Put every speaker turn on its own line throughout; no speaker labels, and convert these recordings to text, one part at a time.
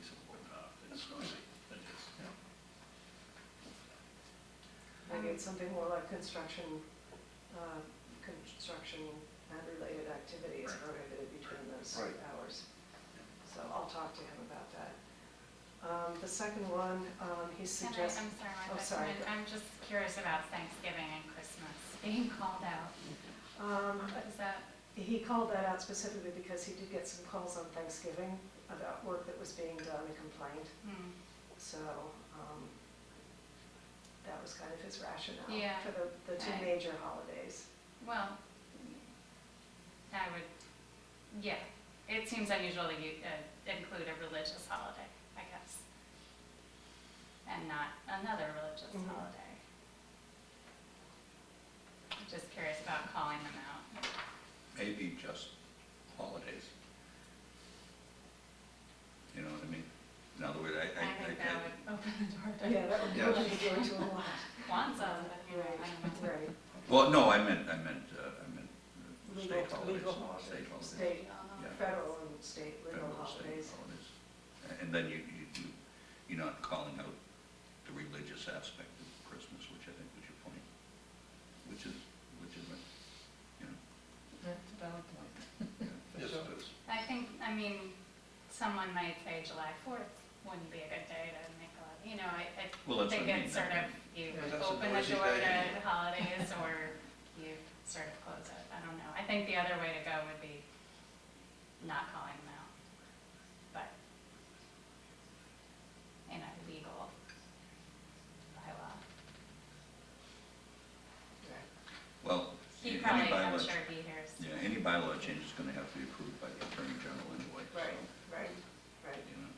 uh,
create something more like construction, uh, construction and related activities
Right.
prohibited between those
Right.
hours. So I'll talk to him about that. Um, The second one, um, he
And I, I'm
suggests,
sorry, Martha,
oh, sorry.
I'm- I'm just curious about Thanksgiving and Christmas being called out.
um,
Is that,
he called that out specifically because he did get some calls on Thanksgiving about work that was being done and complained.
hmm,
So um, that was kind of his rationale
Yeah.
for the, the two
Right.
major holidays.
well, I would, yeah, it seems unusual that you uh, include a religious holiday, I guess. And not another religious
Mhm.
holiday. I'm Just curious about calling them out.
maybe just holidays. You know what I mean? In other words, I, I,
I think that
I,
would open the door
Yeah,
to
that would
Yeah.
probably go to a lot.
Kwanzaa, but you know, I don't know.
Right, right.
well, no, I meant, I meant, uh, I meant uh,
Legal-
state holidays.
legal holidays.
State holidays.
State,
Yeah.
federal and state legal
Federal, state
holidays.
holidays. A- And then you, you, you, you're not calling out the religious aspect of Christmas, which I think was your point, which is, which is, you know.
That's a valid point. For
Yes,
sure.
it is.
I think, I mean, someone might say July fourth wouldn't be a good day to make a lot, you know, I,
Well,
I
that's
think
what I mean,
it's sort
that-
of, you
Yeah,
that's a
open the
noisy
door
day.
to holidays or you sort of close it, I don't know. I think the other way to go would be not calling them out, but in a legal bylaw.
Well,
He
any
probably, I'm
bylaw,
sure he hears.
yeah, any bylaw change is gonna have to be approved by the Attorney General anyway, so.
Right, right, right.
you know.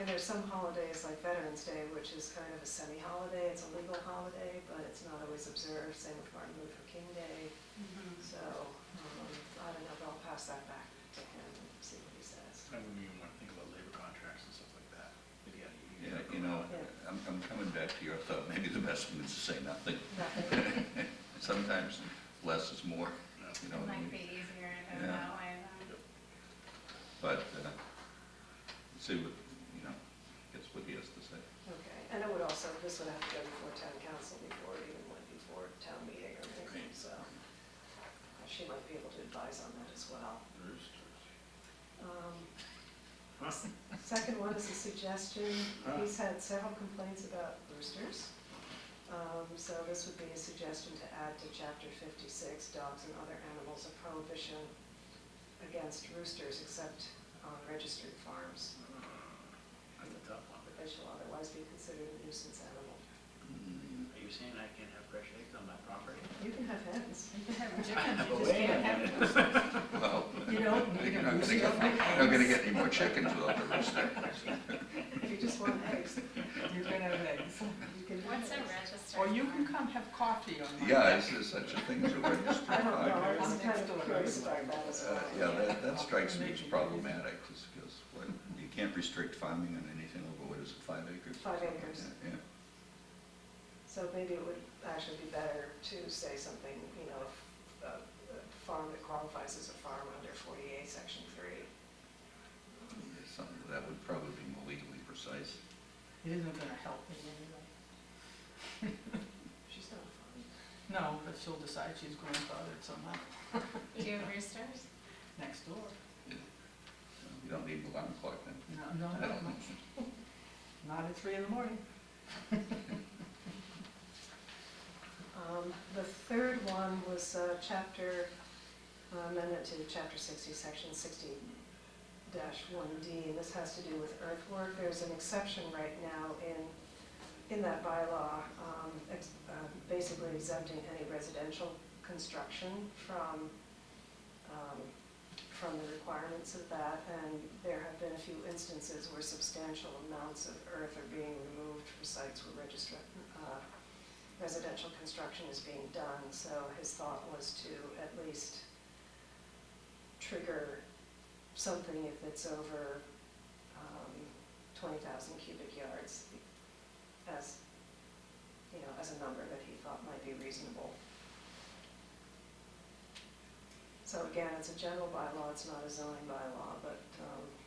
And there's some holidays like Veterans Day, which is kind of a semi-holiday, it's a legal holiday, but it's not always observed, same with Martin Luther King Day.
Mhm.
So, um, I don't know, but I'll pass that back to him and see what he says.
I wouldn't even want to think about labor contracts and stuff like that. But yeah, you-
Yeah, you
you
know,
Yeah.
I'm, I'm coming back to your thought, maybe the best thing is to say nothing.
Nothing.
Sometimes less is more,
No.
you know
It
what I
might
mean?
be easier to
Yeah.
go that way than.
But, uh, see what, you know, gets what he has to say.
Okay, and it would also, this would have to go before town council before, it even went before town meeting or anything,
Right.
so she might be able to advise on that as well. Um,
Huh?
Second one is a suggestion,
Huh.
he's had several complaints about roosters. Um, So this would be a suggestion to add to chapter fifty-six, dogs and other animals, a prohibition against roosters except on registered farms,
That's a tough one.
but they shall otherwise be considered a nuisance animal.
Mm,
Are you saying I can't have fresh eggs on my property?
You can have hens.
You can have
you just can't have
Well.
You don't need a
you're not gonna
rooster
get-
for
you're Not gonna get any more chickens without the rooster.
If you just want eggs,
You can have eggs.
you can. have
What's a
eggs.
registered?
Or you can
farm?
come have coffee on my.
Yeah, is there such a thing as a registered
I don't know, I
dog?
was
Next
kind
door.
of curious about that as
Uh,
well.
Yeah, that, that strikes me as problematic, just because, what, you can't restrict farming on anything over, what is it, five acres? or
Five
something like
acres.
that, Yeah.
So maybe it would actually be better to say something, you know, a a farm that qualifies as a farm under 48, section 3.
Something that would probably be more legally precise.
It isn't gonna help me anyway.
She's not a farm.
No, but she'll decide she's grandfathered somehow
Do roosters?
next door.
You don't need an alarm clock then.
No, no, no, no. Not at three in the morning.
Um, The third one was uh, chapter, uh, amendment to chapter 60, section 60 1D, and this has to do with earthwork. There's an exception right now in, in that bylaw, um, ex- uh, basically exempting any residential construction from, um, from the requirements of that, and there have been a few instances where substantial amounts of earth are being removed for sites where registra- uh residential construction is being done, so his thought was to at least trigger something if it's over um, twenty thousand cubic yards as, you know, as a number that he thought might be reasonable. So again, it's a general bylaw, it's not a zoning bylaw, but um,